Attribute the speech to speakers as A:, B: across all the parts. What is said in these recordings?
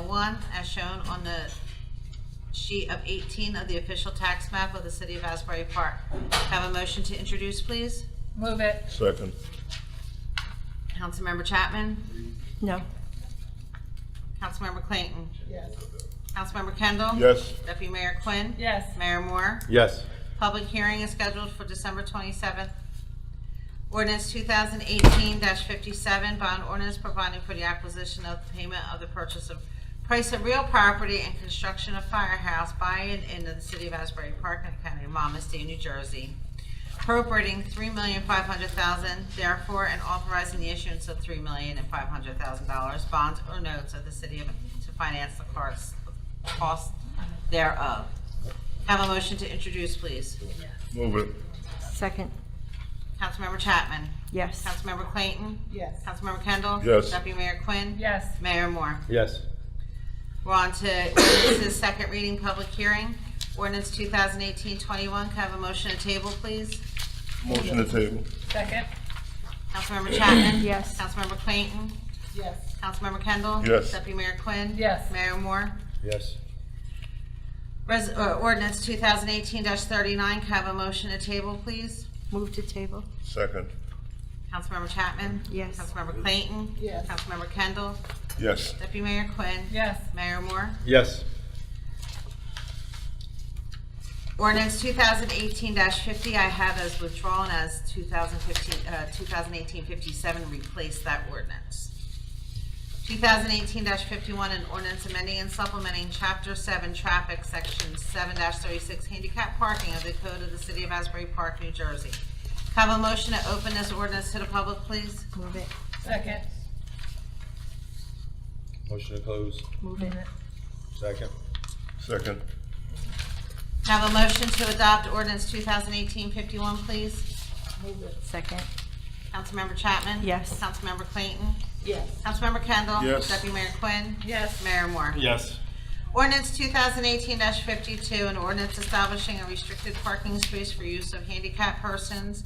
A: one, as shown on the sheet of 18 of the official tax map of the city of Asbury Park. Have a motion to introduce, please?
B: Move it.
C: Second.
A: Councilmember Chapman?
D: No.
A: Councilmember Clayton?
B: Yes.
A: Councilmember Kendall?
C: Yes.
A: Deputy Mayor Quinn?
B: Yes.
A: Mayor Moore?
C: Yes.
A: Public hearing is scheduled for December 27th. Ordinance 2018-57, bond ordinance providing for the acquisition of the payment of the purchase of price of real property and construction of firehouse by and into the city of Asbury Park and County of Monmouth, State of New Jersey, appropriating $3,500,000 therefore and authorizing the issuance of $3,500,000 bonds or notes of the city of- to finance the costs- costs thereof. Have a motion to introduce, please.
C: Move it.
D: Second.
A: Councilmember Chapman.
D: Yes.
A: Councilmember Clayton.
B: Yes.
A: Councilmember Kendall.
C: Yes.
A: Deputy Mayor Quinn.
B: Yes.
A: Mayor Moore.
C: Yes.
A: We're on to ordinance's second reading, public hearing. Ordinance 2018-21, can I have a motion to table, please?
C: Motion to table.
B: Second.
A: Councilmember Chapman.
D: Yes.
A: Councilmember Clayton.
B: Yes.
A: Councilmember Kendall.
C: Yes.
A: Deputy Mayor Quinn.
B: Yes.
A: Mayor Moore.
C: Yes.
A: Res- uh, Ordinance 2018-39, can I have a motion to table, please?
D: Move to table.
C: Second.
A: Councilmember Chapman.
D: Yes.
A: Councilmember Clayton.
B: Yes.
A: Councilmember Kendall.
C: Yes.
A: Deputy Mayor Quinn.
B: Yes.
A: Mayor Moore.
C: Yes.
A: Ordinance 2018-50, I have as withdrawn as 2015, uh, 2018-57, replace that ordinance. 2018-51, an ordinance amending and supplementing Chapter 7 Traffic, Section 7-36 Handicap Parking of the Code of the City of Asbury Park, New Jersey. Have a motion to open this ordinance to the public, please?
D: Move it.
B: Second.
E: Motion to close,
D: Move it.
E: second.
C: Second.
A: Have a motion to adopt ordinance 2018-51, please?
B: Move it.
D: Second.
A: Councilmember Chapman?
D: Yes.
A: Councilmember Clayton?
B: Yes.
A: Councilmember Kendall?
C: Yes.
A: Deputy Mayor Quinn?
B: Yes.
A: Mayor Moore?
C: Yes.
A: Ordinance 2018-52, an ordinance establishing a restricted parking space for use of handicapped persons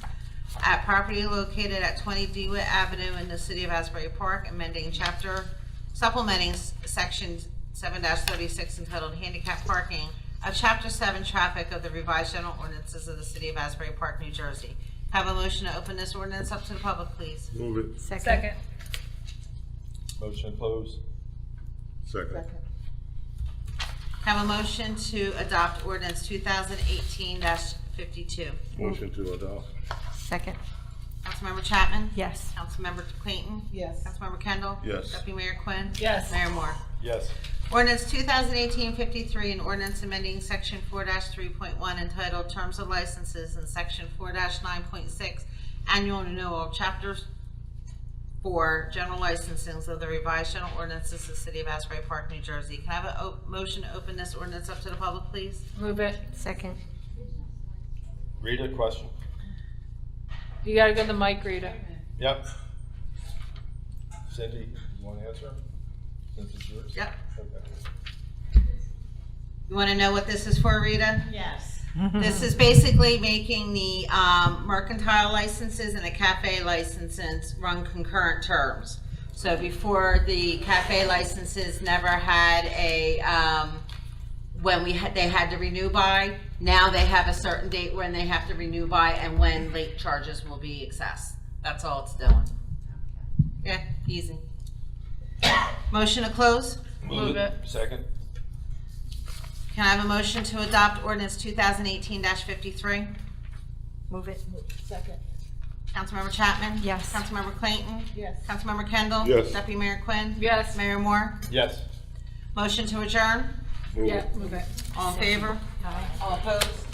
A: at property located at 20 Dewitt Avenue in the city of Asbury Park, amending chapter, supplementing s- section 7-36 entitled Handicap Parking of Chapter 7 Traffic of the revised general ordinances of the city of Asbury Park, New Jersey. Have a motion to open this ordinance up to the public, please.
C: Move it.
D: Second.
B: Second.
E: Motion to close,
C: Second.
A: Have a motion to adopt ordinance 2018-52.
C: Motion to adopt.
D: Second.
A: Councilmember Chapman?
D: Yes.
A: Councilmember Clayton?
B: Yes.
A: Councilmember Kendall?
C: Yes.
A: Deputy Mayor Quinn?
B: Yes.
A: Mayor Moore?
E: yes.
A: Ordinance 2018-53, an ordinance amending Section 4-3.1 entitled Terms of Licenses and Section 4-9.6 Annual Renewal, Chapter 4, General Licensings of the Revised General Ordinances of the City of Asbury Park, New Jersey. Can I have a o- motion to open this ordinance up to the public, please?
B: Move it.
D: Second.
E: Rita, question?
B: You gotta go to the mic, Rita.
E: Yep. Cindy, you want to answer? Since it's yours?
A: Yep.
E: Okay.
A: You want to know what this is for, Rita?
B: Yes.
A: This is basically making the um, mercantile licenses and the cafe licenses run concurrent terms. So before, the cafe licenses never had a, um, when we had, they had to renew by. Now they have a certain date when they have to renew by and when late charges will be assessed. That's all it's doing. Yeah, easy. Motion to close?
B: Move it.
E: Second,
A: Can I have a motion to adopt ordinance 2018-53?
D: Move it.
B: Second.
A: Councilmember Chapman?
D: Yes.
A: Councilmember Clayton?
B: Yes.
A: Councilmember Kendall?
C: Yes.
A: Deputy Mayor Quinn?
B: Yes.
A: Mayor Moore?
E: yes.
A: Motion to adjourn?
C: Move it.
B: move it.
A: All in favor? All opposed?